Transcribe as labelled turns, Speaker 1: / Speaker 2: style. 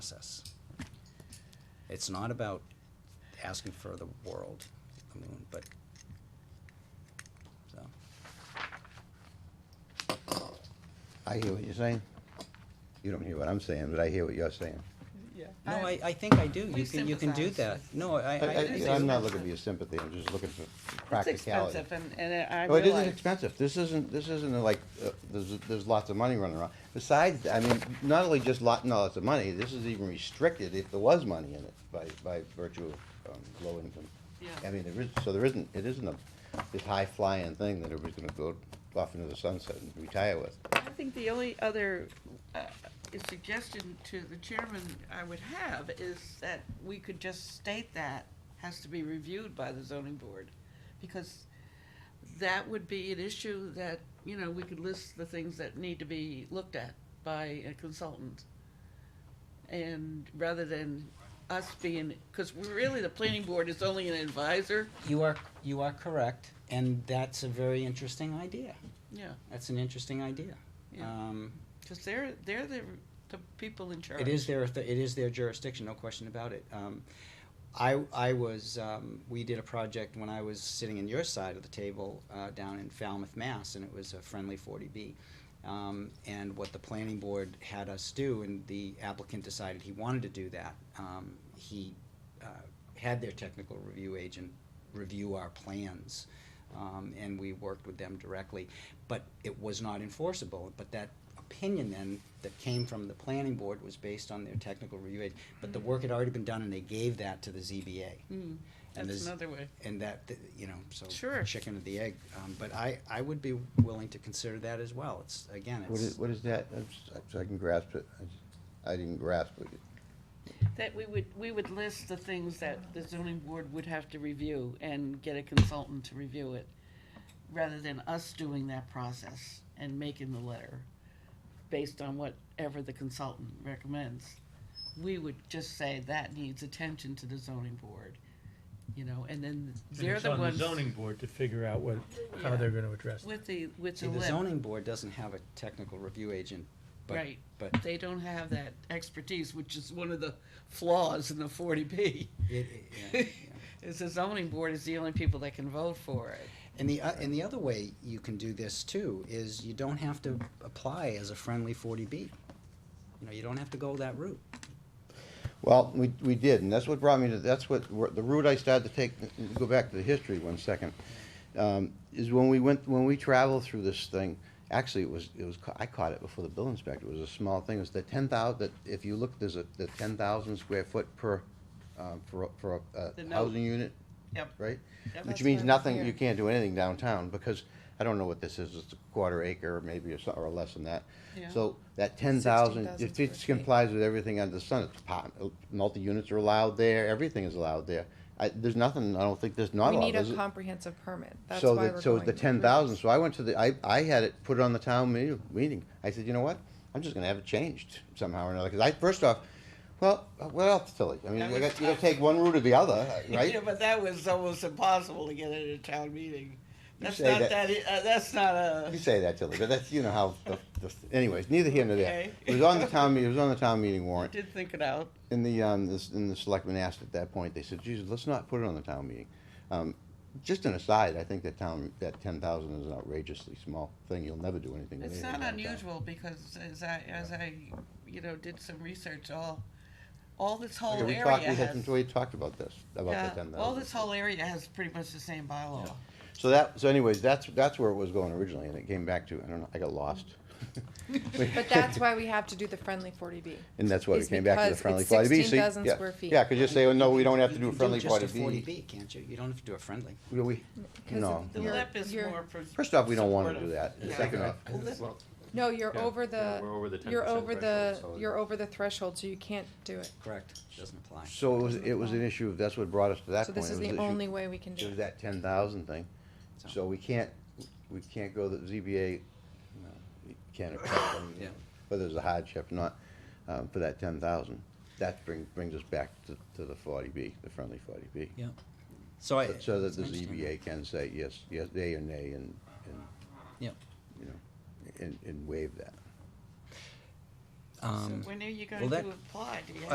Speaker 1: process. It's not about asking for the world, I mean, but, so,
Speaker 2: I hear what you're saying. You don't hear what I'm saying, but I hear what you're saying.
Speaker 3: Yeah.
Speaker 1: no, I, I think I do, you
Speaker 3: We
Speaker 1: can, you can do that,
Speaker 3: Uh, sympathize.
Speaker 1: no, I,
Speaker 2: I-
Speaker 1: I.
Speaker 2: I- I'm not looking for your sympathy, I'm just looking for practicality.
Speaker 3: It's expensive and, and I
Speaker 2: Oh, it isn't
Speaker 3: realize.
Speaker 2: expensive. This isn't, this isn't like, uh, there's, there's lots of money running around. Besides, I mean, not only just lot, not lots of money, this is even restricted if there was money in it by, by virtue of um, low income.
Speaker 3: Yeah.
Speaker 2: I mean, there is, so there isn't, it isn't a, this high flying thing that everybody's gonna go off into the sunset and retire with.
Speaker 3: I think the only other uh, suggestion to the chairman I would have is that we could just state that has to be reviewed by the zoning board. Because that would be an issue that, you know, we could list the things that need to be looked at by a consultant. And rather than us being, because really the planning board is only an advisor,
Speaker 1: You are, you are correct, and that's a very interesting idea,
Speaker 3: yeah,
Speaker 1: that's an interesting idea.
Speaker 3: yeah.
Speaker 1: Um,
Speaker 3: Because they're, they're the, the people in charge.
Speaker 1: It is their, it is their jurisdiction, no question about it. Um, I, I was, um, we did a project when I was sitting in your side of the table, uh, down in Falmouth, Mass, and it was a friendly forty B. Um, and what the planning board had us do, and the applicant decided he wanted to do that, um, he, uh, had their technical review agent review our plans. Um, and we worked with them directly, but it was not enforceable, but that opinion then that came from the planning board was based on their technical review aid, but the work had already been done and they gave that to the ZBA.
Speaker 3: Mm,
Speaker 1: And
Speaker 3: That's
Speaker 1: there's-
Speaker 3: another way.
Speaker 1: And that, th- you know, so
Speaker 3: Sure.
Speaker 1: chicken or the egg, um, but I, I would be willing to consider that as well, it's, again,
Speaker 2: What is,
Speaker 1: it's,
Speaker 2: what is that? I'm s- So I can grasp it. I just- I didn't grasp it.
Speaker 3: That we would, we would list the things that the zoning board would have to review and get a consultant to review it, rather than us doing that process and making the letter based on whatever the consultant recommends. We would just say that needs attention to the zoning board, you know, and then
Speaker 4: And
Speaker 3: they're
Speaker 4: it's
Speaker 3: the
Speaker 4: on the
Speaker 3: ones
Speaker 4: zoning board to figure out what, how
Speaker 3: Yeah.
Speaker 4: they're gonna address it.
Speaker 3: with the, with
Speaker 1: see,
Speaker 3: the
Speaker 1: the
Speaker 3: letter.
Speaker 1: zoning board doesn't have a technical review agent, but,
Speaker 3: Right,
Speaker 1: but
Speaker 3: they don't have that expertise, which is one of the flaws in the forty B.
Speaker 1: it, it, yeah, yeah.
Speaker 3: It's the zoning board is the only people that can vote for it.
Speaker 1: And the, o- and the other way you can do this too is you don't have to apply as a friendly forty B. You know, you don't have to go that route.
Speaker 2: Well, we, we did, and that's what brought me to, that's what, the route I started to take, go back to the history one second, um, is when we went, when we traveled through this thing, actually, it was, it was, ca- I caught it before the bill inspector, it was a small thing, it was the ten thousand. that, if you look, there's a, the ten thousand square foot per, um, for, a- for a uh,
Speaker 3: The note.
Speaker 2: housing unit,
Speaker 3: Yep.
Speaker 2: right?
Speaker 3: Yep.
Speaker 2: Which
Speaker 3: That's
Speaker 2: means
Speaker 3: what I was
Speaker 2: nothing,
Speaker 3: hearing.
Speaker 2: you can't do anything downtown, because I don't know what this is, it's a quarter acre, maybe, or so- or less than that.
Speaker 3: Yeah.
Speaker 2: So that ten thousand,
Speaker 5: 16,000
Speaker 2: it
Speaker 5: square
Speaker 2: just
Speaker 5: feet.
Speaker 2: complies with everything under the sun, it's pop, multi-units are allowed there, everything is allowed there. I, there's nothing, I don't think there's not
Speaker 5: We
Speaker 2: allowed,
Speaker 5: need a
Speaker 2: is it?
Speaker 5: comprehensive permit, that's
Speaker 2: So
Speaker 5: why
Speaker 2: that-
Speaker 5: we're
Speaker 2: So
Speaker 5: going
Speaker 2: the
Speaker 5: to
Speaker 2: ten thousand, so I went to the, I, I had it put on the town me- meeting, I said, you know what? I'm just gonna have it changed somehow or another, cause I, first off, well, uh, what else, Tilly? I mean,
Speaker 3: That
Speaker 2: you
Speaker 3: was
Speaker 2: got, you gotta
Speaker 3: tough.
Speaker 2: take one route or the other, uh, right?
Speaker 3: Yeah, but that was almost impossible to get at a town meeting.
Speaker 2: You
Speaker 3: That's
Speaker 2: say
Speaker 3: not
Speaker 2: that-
Speaker 3: that, e- uh, that's not a,
Speaker 2: You say that, Tilly, but that's, you know how, the- the- anyways, neither here nor there.
Speaker 3: Okay.
Speaker 2: It was on the town, me- it was on the town meeting warrant,
Speaker 3: did think it out.
Speaker 2: and the, um, this, and the selectmen asked at that point, they said, Jesus, let's not put it on the town meeting. Um, just an aside, I think that town, that ten thousand is an outrageously small thing, you'll never do anything with uh,
Speaker 3: It's
Speaker 2: anything
Speaker 3: not
Speaker 2: downtown.
Speaker 3: unusual because as I, as I, you know, did some research, all, all this whole
Speaker 2: Okay, we
Speaker 3: area
Speaker 2: talked- we had-
Speaker 3: has.
Speaker 2: We talked about this, about the
Speaker 3: Yeah,
Speaker 2: ten thousand.
Speaker 3: all this whole area has pretty much the same bylaw.
Speaker 2: So that, so anyways, that's, that's where it was going originally, and it came back to, I don't know, I got lost.
Speaker 5: But that's why we have to do the friendly forty B.
Speaker 2: And that's why we
Speaker 5: It's
Speaker 2: came back to the
Speaker 5: because
Speaker 2: friendly
Speaker 5: it's
Speaker 2: forty B.
Speaker 5: 16,000 square feet.
Speaker 2: Yeah, cause you say, oh, no, we don't have to do
Speaker 1: You
Speaker 2: a
Speaker 1: can
Speaker 2: friendly
Speaker 1: just
Speaker 2: forty
Speaker 1: a 40B,
Speaker 2: B.
Speaker 1: can't you? You don't have to do a friendly.
Speaker 2: We, no.
Speaker 3: The
Speaker 5: You're-
Speaker 3: lip is
Speaker 5: you're-
Speaker 3: more. pres-
Speaker 2: First off, we don't wanna do
Speaker 3: supportive.
Speaker 2: that.
Speaker 3: Yeah.
Speaker 2: Second off,
Speaker 3: Well, this-
Speaker 5: No, you're
Speaker 6: Yeah,
Speaker 5: over
Speaker 6: yeah,
Speaker 5: the,
Speaker 6: we're over the 10%
Speaker 5: you're over the,
Speaker 6: threshold, so-
Speaker 5: you're over the threshold, so you can't do it.
Speaker 1: Correct. Doesn't apply.
Speaker 2: so it was, it was an issue, that's what brought us to that
Speaker 5: So
Speaker 2: point.
Speaker 5: this
Speaker 2: It was
Speaker 5: is the
Speaker 2: an issue-
Speaker 5: only way we can
Speaker 2: It
Speaker 5: do
Speaker 2: was
Speaker 5: it.
Speaker 2: that ten thousand thing. So we can't, we can't go the ZBA, no, you can't accept them,
Speaker 1: Yeah.
Speaker 2: whether it's a hardship or not, um, for that ten thousand. That brings, brings us back to, to the forty B, the friendly forty B.
Speaker 1: Yeah. So I.
Speaker 2: So that E the
Speaker 1: I understand
Speaker 2: ZBA can say yes, yes, yea or nay, and, and,
Speaker 1: Yeah.
Speaker 2: you know, and, and waive that.
Speaker 3: So
Speaker 1: Um,
Speaker 3: when are you
Speaker 1: well,
Speaker 3: going
Speaker 1: Um, that-
Speaker 3: to apply? Do you have